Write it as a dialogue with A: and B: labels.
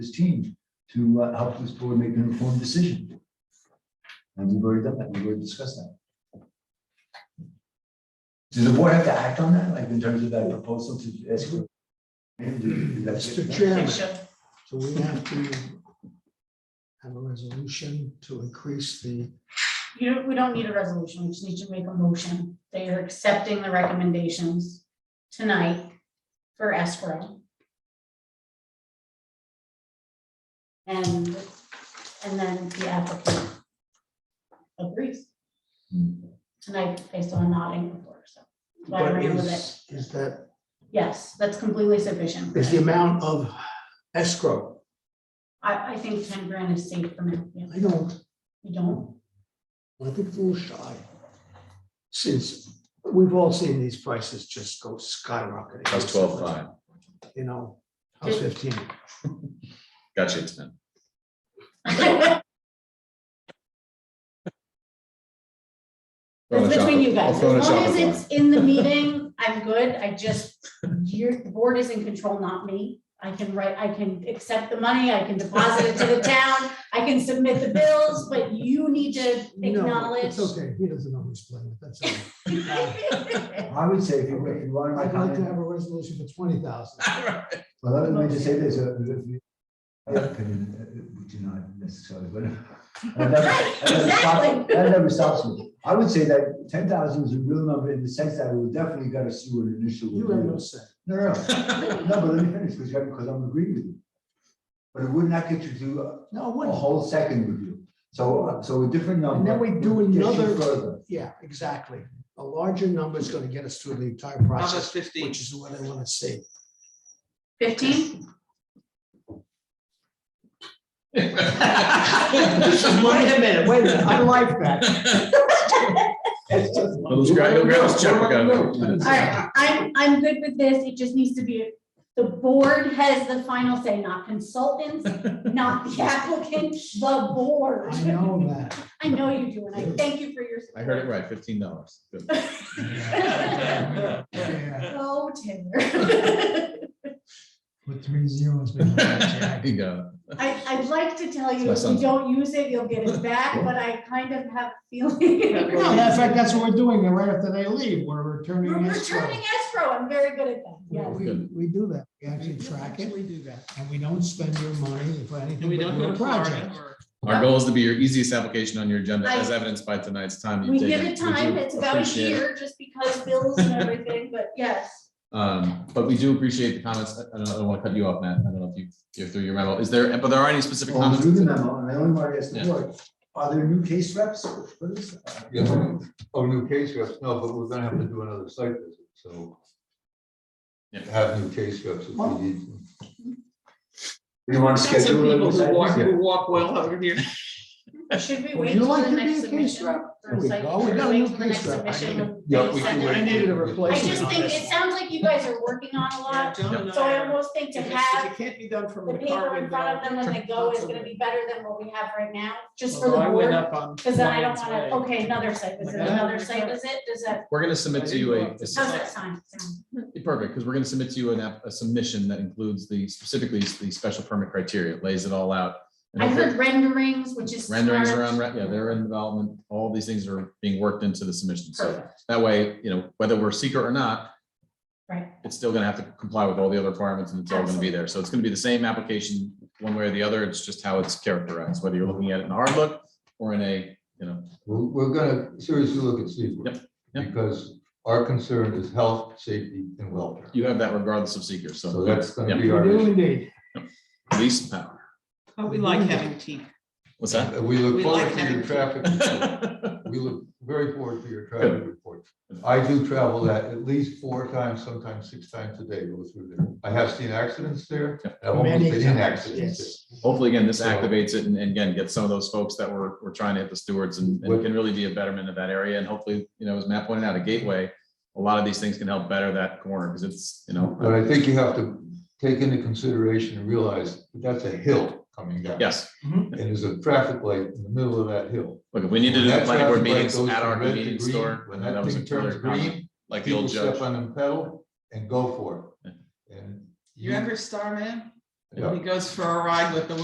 A: his team to uh, help this board make an informed decision. And we've already done that, we've already discussed that. Does the board have to act on that, like in terms of that proposal to ask? for- Is that-
B: Mr. Chairman,
C: Sure.
B: so we have to have a resolution to increase the,
C: You don't, we don't need a resolution, we just need to make a motion that you're accepting the recommendations tonight for escrow. And, and then the applicant agrees tonight based on nodding before, so. Why
B: but
C: ran with it?
B: is, is that,
C: Yes, that's completely sufficient.
B: is the amount of escrow?
C: I, I think ten grand is safe for now, yeah,
B: I don't,
C: you don't,
B: I think it's a little shy. Since we've all seen these prices just go skyrocketing.
D: That was twelve five.
B: You know, how's fifteen?
D: Gotcha, it's ten.
C: That's between you guys. As
D: I'll
C: long as
D: Photoshop it.
C: it's in the meeting, I'm good. I just, you're, the board is in control, not me. I can write, I can accept the money, I can deposit it to the town, I can submit the bills, but you need to
B: No,
C: acknowledge.
B: It's okay, he doesn't always blame it, that's all. right.
A: I would say, if you if you want my
B: I'd like to have
A: comment,
B: a resolution for twenty thousand.
A: well, let me just say this. uh, if we- yeah, I mean, uh, We do not necessarily, but. uh, that never- that never stops-
C: Exactly.
A: That never stops me. I would say that ten thousand is a real number in the sense that we definitely got to see what an initial.
B: You have no say.
A: No, no, no, No, but let me finish, because because I'm agreeing with you. But it would not get you to do a-
B: No,
A: a
B: what?
A: whole second review. So, uh, so a different number.
B: And then we do
A: would get you
B: another-
A: Further.
B: Yeah, exactly. A larger number is gonna get us through the entire
E: How about
B: process,
E: fifteen?
B: which is what I wanna see.
C: Fifteen?
B: Wait a minute, wait a minute, I like that.
A: It's just-
D: Those guys, those girls, check it out.
C: All right, I'm, I'm good with this. It just needs to be, the board has the final say, not consultants, not the applicant, the board.
B: I know that.
C: I know you do, and I thank you for your.
D: I heard it right, fifteen dollars.
C: right.
B: Yeah,
C: Go Taylor.
B: With three zeros.
D: There you go.
C: I, I'd like to tell you,
D: That's
C: if
D: my
C: you
D: son's.
C: don't use it, you'll get it back, but I kind of have a feeling.
B: No, in fact, that's what we're doing, and right after they leave, we're returning.
C: We're
B: escrow.
C: returning escrow, I'm very good at that,
B: Yeah,
C: yes.
B: we, we do that. We actually track it. We do that. And we don't spend your money for
E: And
B: anything
E: we
B: but
E: don't go
B: your
E: to Florida
B: project.
E: or
D: Our goal is to be your easiest application on your agenda, as evidenced by tonight's time.
C: We
D: You've
C: give
D: taken.
C: it time,
D: do
C: it's about a
D: appreciate it.
C: year, just because bills and everything, but yes.
D: Um, but we do appreciate the comments. I I don't, I don't want to cut you off, Matt. I don't know if you, you're through your memo. Is there, but there are any specific
A: Well, through the
D: comments?
A: memo, and I only want to ask the
D: Yeah.
A: board, are there new case reps? What is that?
F: Yeah, oh, new case reps, no, but we're gonna have to do another site visit, so.
D: Yeah.
F: Have new case reps if we need. to.
A: We want to
E: Some
A: schedule.
E: people
A: another
E: who walk,
A: site visit?
E: who walk well over here.
C: Should we
B: Would
C: wait
B: you
C: till
B: like
C: the
B: to be a
C: next
B: case
C: submission?
B: rep?
C: Or
B: There we
C: like-
B: go. We
C: should
B: got a
C: wait
B: new
C: till the
B: case
C: next
B: rep. I
C: submission
B: need-
C: when
F: Yeah,
C: they
F: we
C: send
F: can
C: it?
F: wait.
B: I needed a
C: I
B: replacement.
C: just think, it sounds like you guys are working on a lot,
E: John and
C: so
E: I
C: I
E: are-
C: almost think to
E: if it's-
C: have
E: if It can't be done from
C: the
E: the
C: paper
E: car
C: in front of them when they go is gonna be better than what we have right now, just for the board. Cause then I don't wanna, okay, another site visit,
E: Yeah.
C: another site visit, does that,
D: We're gonna submit to you a,
C: how's that sound? sound?
D: Perfect, because we're gonna submit to you an app, a submission that includes the, specifically the special permit criteria, It lays it all out. And
C: I
D: hopefully
C: heard renderings, which is.
D: Renderings
C: smart.
D: around, yeah, they're in development, all these things are being worked into the submission, so
C: Perfect,
D: that way, you know, whether we're secret or not,
C: right,
D: it's still gonna have to comply with all the other requirements and it's all gonna be there, so it's gonna be the same application one way or the other, it's just how it's characterized, whether you're looking at it in a hard look or in a, you know,
F: We're, we're gonna seriously look at
D: Yep,
F: secret.
D: yep.
F: Because our concern is health, safety, and welfare.
D: you have that regardless of seeker,
F: So
D: so
F: that's gonna
D: Yeah.
F: be
B: We
F: our
B: do
F: issue.
B: indeed.
D: police power,
E: We like having teeth.
D: what's that?
F: Uh, We
E: We
F: look
E: like
F: forward to
E: having-
F: the traffic. report. We look very forward to your traffic report. I do travel that at least four times, sometimes six times a day, go through there. I have seen accidents there. and I've almost
B: Many
F: been in
B: times,
F: accidents there.
B: yes.
D: Hopefully, again, this
F: So-
D: activates it and and again, gets some of those folks that were, were trying to hit the stewards and, and
F: What-
D: can really be a betterment of that area. And hopefully, you know, as Matt pointed out, a gateway, a lot of these things can help better that corner because it's, you
F: But
D: know,
F: I think you have to take into consideration and realize that that's a hill coming down.
D: yes.
F: And there's a traffic light in the middle of that hill.
D: Look, if we need to do
F: When
D: the
F: that
D: planning board
F: traffic light
D: meetings
F: goes
D: at
F: from
D: our
F: red to
D: convenience
F: green,
D: store, uh,
F: When
D: that
F: that
D: was a
F: thing turns
D: clear comment,
F: green,
D: like the
F: people
D: old judge.
F: step on the pedal and go for it. And
E: You ever star man? He goes for a ride with the